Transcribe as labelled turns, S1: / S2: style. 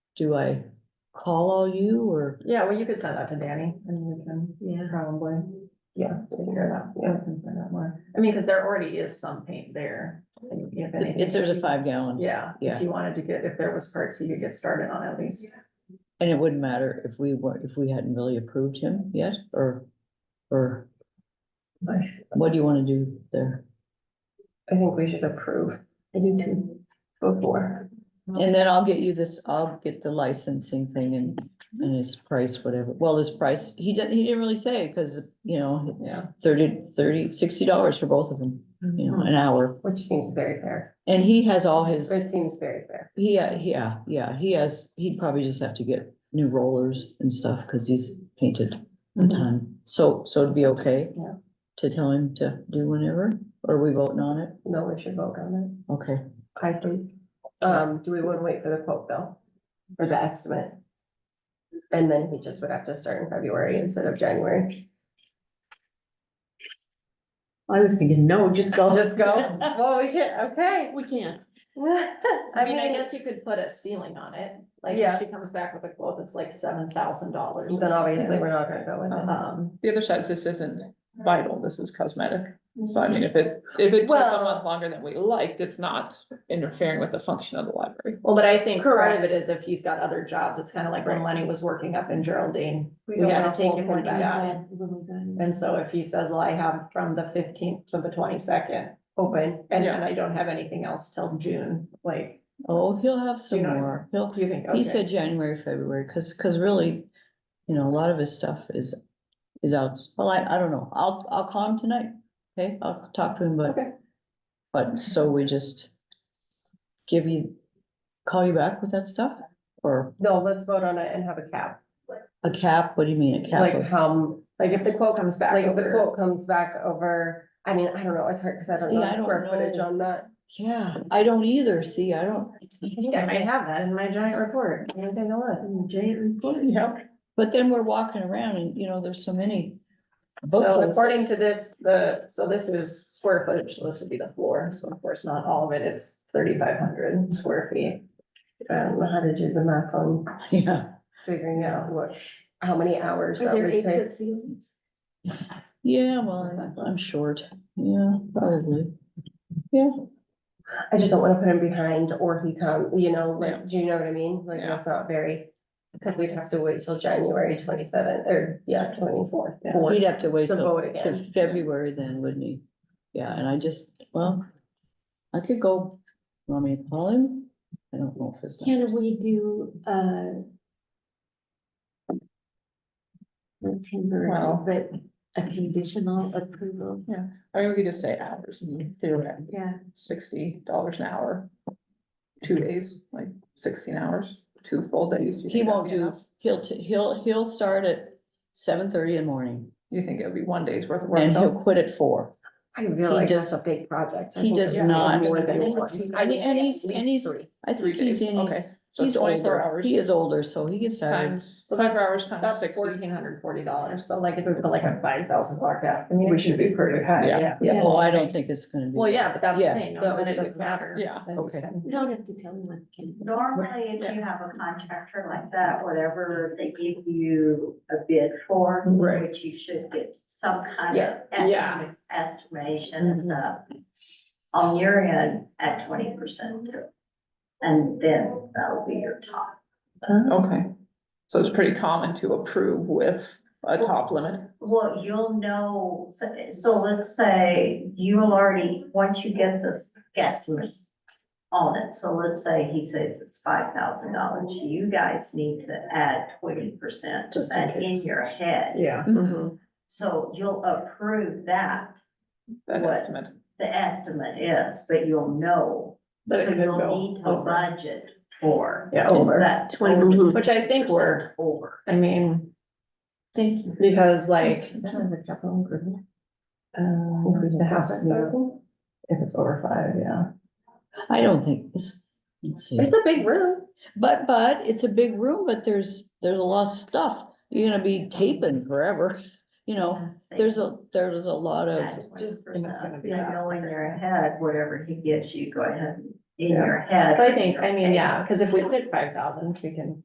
S1: do I call all you or?
S2: Yeah, well, you could send that to Danny and we can
S1: Yeah.
S2: probably, yeah, take care of that. Yeah, we can find out more. I mean, because there already is some paint there. if anything.
S1: It's, there's a five gallon.
S2: Yeah,
S1: Yeah.
S2: if you wanted to get, if there was parts you could get started on at least.
S1: And it wouldn't matter if we were, if we hadn't really approved him yet, or, or what do you wanna do there?
S3: I think we should approve. I do too. Before.
S1: And then I'll get you this, I'll get the licensing thing and, and his price, whatever, well, his price, he didn't, he didn't really say, cause, you know,
S2: Yeah.
S1: thirty, thirty, sixty dollars for both of them,
S2: Mm-hmm.
S1: you know, an hour,
S3: Which seems very fair.
S1: and he has all his,
S3: It seems very fair.
S1: he, yeah, yeah, he has, he'd probably just have to get new rollers and stuff, cause he's painted. a
S2: Mm-hmm.
S1: ton. So, so it'd be okay?
S3: Yeah.
S1: To tell him to do whenever, or are we voting on it?
S3: No, we should vote on
S1: Okay,
S3: it. I think. Um, do we want to wait for the quote bill? For the estimate? And then he just would have to start in February instead of January.
S4: I was thinking, no, just go.
S3: Just go. Well, we can, okay.
S4: We can't.
S2: I mean, I guess you could put a ceiling on it, like
S3: Yeah.
S2: if she comes back with a quote that's like seven thousand dollars.
S3: Then obviously, we're not gonna go with it.
S2: Um,
S5: The other side is this isn't vital, this is cosmetic. So I
S1: Mm-hmm.
S5: mean, if it, if it took a
S3: Well-
S5: month longer than we liked, it's not interfering with the function of the library.
S2: well, but I think part of
S3: Correct.
S2: it is if he's got other jobs, it's kind of like when Lenny was working up in Geraldine. We
S3: don't
S2: had
S3: know
S2: to take
S3: what
S2: him
S3: we're
S2: when he
S3: doing.
S2: got it. And so if he says, well, I have from the fifteenth to the twenty-second,
S3: Open.
S2: and
S5: Yeah.
S2: then I don't have anything else till June, like,
S1: oh, he'll have some
S2: You know,
S1: more, he'll,
S2: do you think?
S1: he
S2: okay.
S1: said January, February, cause, cause really, you know, a lot of his stuff is, is out, well, I, I don't know, I'll, I'll call him tonight, okay, I'll talk to him, but,
S2: Okay.
S1: but, so we just give you, call you back with that stuff, or
S3: No, let's vote on it and have a cap.
S1: a cap, what do you mean, a cap?
S3: Like um,
S1: of-
S3: how,
S2: Like if the quote comes back.
S3: Like if the
S2: over-
S3: quote comes back over, I mean, I don't know, it's hard because I don't know
S1: Yeah, I
S3: the square
S1: don't
S3: footage
S1: know.
S3: on that.
S1: Yeah, I don't either, see, I don't.
S2: I think I might have that in my giant report. Can you take a
S3: Mm.
S2: look? Giant report.
S5: Yeah.
S1: But then we're walking around and, you know, there's so many.
S2: So
S1: booklets.
S2: according to this, the, so this is square footage, so this would be the floor, so of course not all of it, it's thirty-five hundred square feet.
S3: I don't know how to do the math on
S1: Yeah,
S3: figuring out what, how many hours that
S4: there
S3: would take.
S4: ceilings?
S1: yeah, well, I'm short, yeah, probably. Yeah,
S3: I just don't want to put him behind or he come, you know,
S5: Yeah.
S3: like, do you know what I mean? Like,
S5: Yeah.
S3: that's not very, because we'd have to wait till January twenty-seventh or, yeah, twenty-fourth.
S1: he'd have to wait
S3: To
S1: till
S3: vote again.
S1: till February then, wouldn't he? Yeah, and I just, well, I could go, you want me to call him? I don't know if it's.
S4: Can we do, uh, not temporary,
S5: Well.
S4: but a conditional approval?
S5: I mean, we could just say hours, I mean, theoretically,
S4: Yeah,
S5: sixty dollars an hour. Two days, like sixteen hours, two full days. Do you
S1: He
S5: think that'd
S1: won't
S5: be
S1: do,
S5: enough?
S1: he'll, t- he'll, he'll start at seven thirty in the morning
S5: You think it'd be one day's worth of work
S1: and he'll
S5: though?
S1: quit at four.
S3: I realize that's a
S1: does-
S3: big project. I
S1: he
S3: think
S1: does
S3: it's
S1: not-
S3: More than
S4: And
S3: one.
S4: he-
S3: I mean,
S1: and
S3: at
S1: he's- and
S3: least
S1: he's-
S3: three.
S1: I
S5: Three
S1: think he's
S5: days,
S1: in, his-
S5: okay. So
S1: he's
S5: twenty-four
S1: older,
S5: hours.
S1: he is older, so he gets tired.
S5: Times, twenty-four hours times
S2: That's
S5: sixty.
S2: fourteen hundred forty dollars, so like if we put like a five thousand block out, I mean, we should be pretty high,
S5: Yeah.
S2: yeah.
S1: Yeah, well, Oh, I don't think it's gonna be.
S2: Well, yeah, but that's the
S1: Yeah.
S2: thing,
S3: That
S2: then
S3: would
S2: it
S3: be the
S2: doesn't
S3: cap.
S2: matter.
S5: Yeah.
S2: Then you
S1: Okay.
S2: can-
S4: you don't have to tell me what can.
S6: Normally, if you have a contractor like that, whatever they give you a bid for,
S2: Right.
S6: which you should get some kind of
S3: Yeah.
S2: Yeah. Mm-hmm.
S6: estimate, estimation and stuff. On your end at twenty percent too. And then that'll be your top.
S5: Okay. So it's pretty common to approve with a top limit.
S6: Well, you'll know, so, so let's say you will already, once you get this guesstimates on it, so let's say he says it's five thousand dollars, you guys need to add twenty percent
S2: Just in
S6: in
S2: case. Mm-hmm.
S6: your head.
S2: Yeah.
S6: So you'll approve that,
S5: That
S6: What?
S5: estimate.
S6: the estimate is, but you'll know.
S2: But it
S6: So
S2: could
S6: you'll
S2: go
S6: need to
S2: over.
S6: budget for
S2: Yeah, over, Mm-hmm.
S6: that twenty percent.
S2: which I think we're,
S6: Over.
S2: I mean,
S3: Thank you.
S2: because like,
S3: That was a capital improvement.
S2: um, the house, to be- if it's over five, yeah.
S1: I don't think this, let's see,
S3: It's a big room.
S1: but, but it's a big room, but there's, there's a lot of stuff. You're gonna be taping forever, you know, there's a, there's a lot of,
S2: Just-
S6: Just,
S2: and it's gonna be that.
S6: know in your head, whatever he gives you, go ahead, in
S2: Yeah.
S6: your head.
S2: But I think, I mean, yeah, because if we hit five thousand, we can